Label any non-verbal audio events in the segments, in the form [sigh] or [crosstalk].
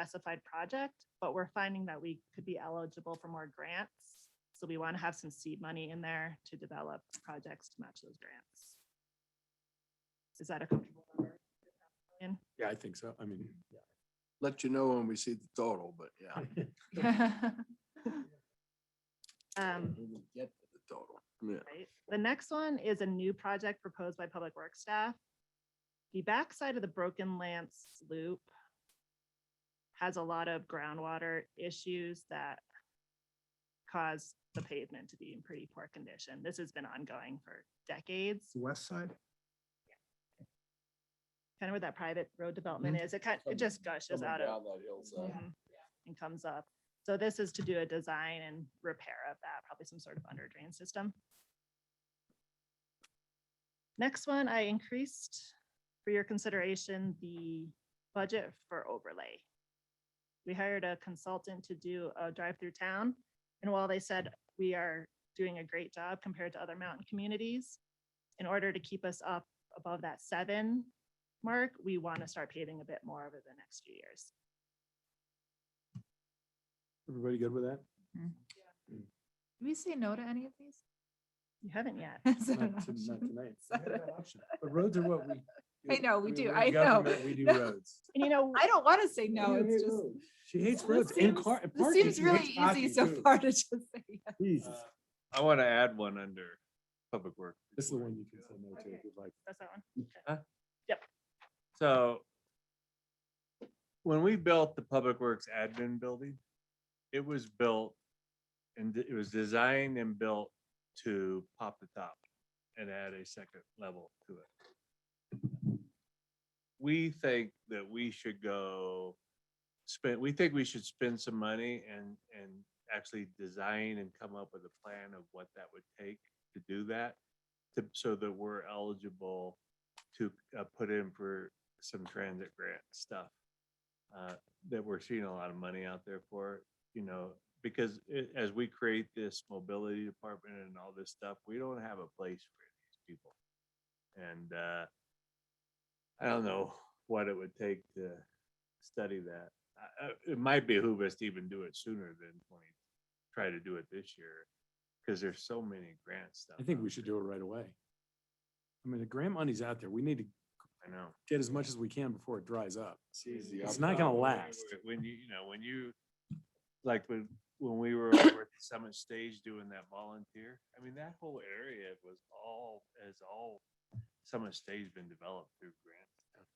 specified project, but we're finding that we could be eligible for more grants. So we want to have some seed money in there to develop projects to match those grants. Is that a comfortable number? Ian? Yeah, I think so. I mean, Let you know when we see the total, but Oh, yeah. [laughs] yeah. Um, we will Get to the total. Yeah. Right. The next one is a new project proposed by Public Works staff. The backside of the Broken Lance Loop has a lot of groundwater issues that cause the pavement to be in pretty poor condition. This has been ongoing for decades, West side? kind of where that private road development is. It kind, it just gushes out of uh, Mhm. and comes up. So this is to do a design and repair of that, probably some sort of under drain system. Next one, I increased for your consideration, the budget for overlay. We hired a consultant to do a drive through town. And while they said we are doing a great job compared to other mountain communities, in order to keep us up above that seven mark, we want to start paving a bit more over the next few years. Everybody good with [laughs] that? Did we say no to any of these? [laughs] You haven't yet. Is that an Not to- not option? tonight. Is that an But roads are what we. I do. know, we mean, do. we're I know. government, We do [laughs] No. roads. And you know, [laughs] I don't want to say no, You hate it's just. roads. She hates This roads and seems- car. and This parking. seems She hates really easy parking, so too. far to just say yes. Jesus. Uh, I want to add one under public work. This is the one you can say no to if you'd like. that's that one. So when we built the Public Works admin building, it was built and it was designed and built to pop the top and add a second level to it. We think that we should go spend, we think we should spend some money and, and actually design and come up with a plan of what that would take to do that. To, so that we're eligible to uh, put in for some transit grant stuff uh, that we're seeing a lot of money out there for, you know, because it- as we create this mobility department and all this stuff, we don't have a place for these people. And uh, I don't know what it would take to study that. I- I- It might behoove us to even do it sooner than twenty, try to do it this year, because there's so many grant stuff. I think out we should there. do it right away. I mean, the grant money's out there. We need to I know. get as much as we can before it dries up. easy. It's I'm not gonna proud. last. When you, you know, when you, like, when, when we were over at the Summit Stage doing that volunteer, I mean, that whole area was all, is all, Summit Stage been developed through grants. and stuff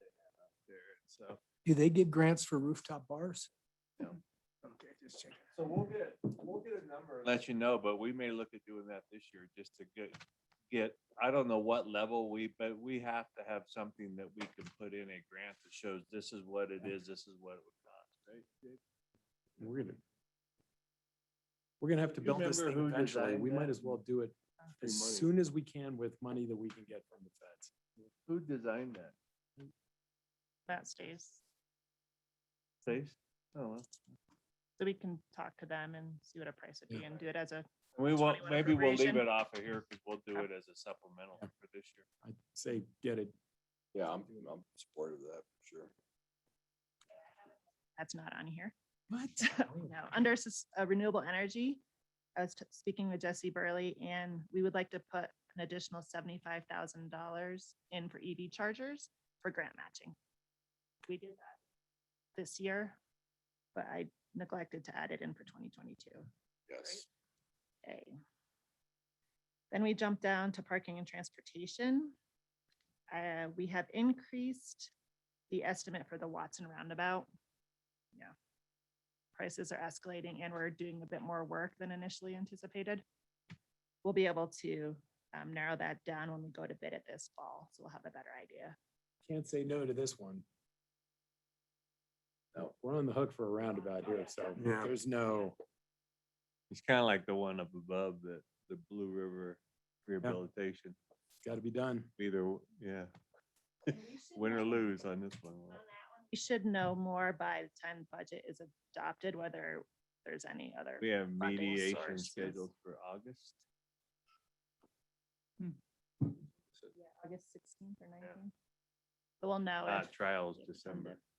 they have out there. So, Do they give grants for rooftop bars? Okay, just checking. so we'll get, we'll get a number. Let you know, but we may look at doing that this year just to get, get, I don't know what level we, but we have to have something that we can put in a grant that shows this is what it is, this is what it would cost, right? Jake? We're gonna. We're gonna have to You build this remember thing who eventually. designed We might that? as well do it Free as money. soon as we can with money that we can get from the feds. Who designed that? That stays. Place? Oh, well. So we can talk to them and see what a price would be and do it as a, We won't, 21 maybe we'll leave appropriation. it off of here because we'll do it as a supplemental Yeah. for this year. I'd say get it. Yeah, I'm, I'm supportive of that, for sure. that's not on here. What? [laughs] No, under sus- uh, renewable energy, I was t- speaking with Jesse Burley and we would like to put an additional seventy-five thousand dollars in for EV chargers for grant matching. We did that this year, but I neglected to add it in for twenty twenty-two. Yes. A. Then we jump down to parking and transportation. Uh, we have increased the estimate for the Watson Roundabout. Yeah. Prices are escalating and we're doing a bit more work than initially anticipated. We'll be able to um, narrow that down when we go to bid it this fall, so we'll have a better idea. Can't say no to this one. No, we're on the hook for a roundabout here, so Yeah. there's no, It's kind of like the one up above the, the Blue River rehabilitation, it's gotta be done. either, w- yeah, [laughs] win or lose on this one. We should know more by the time the budget is adopted, whether there's any other. We have Funding mediation sources. scheduled for August. Yeah, August sixteenth or nineteenth. But we'll know Uh, if trials it becomes Uh, December. a-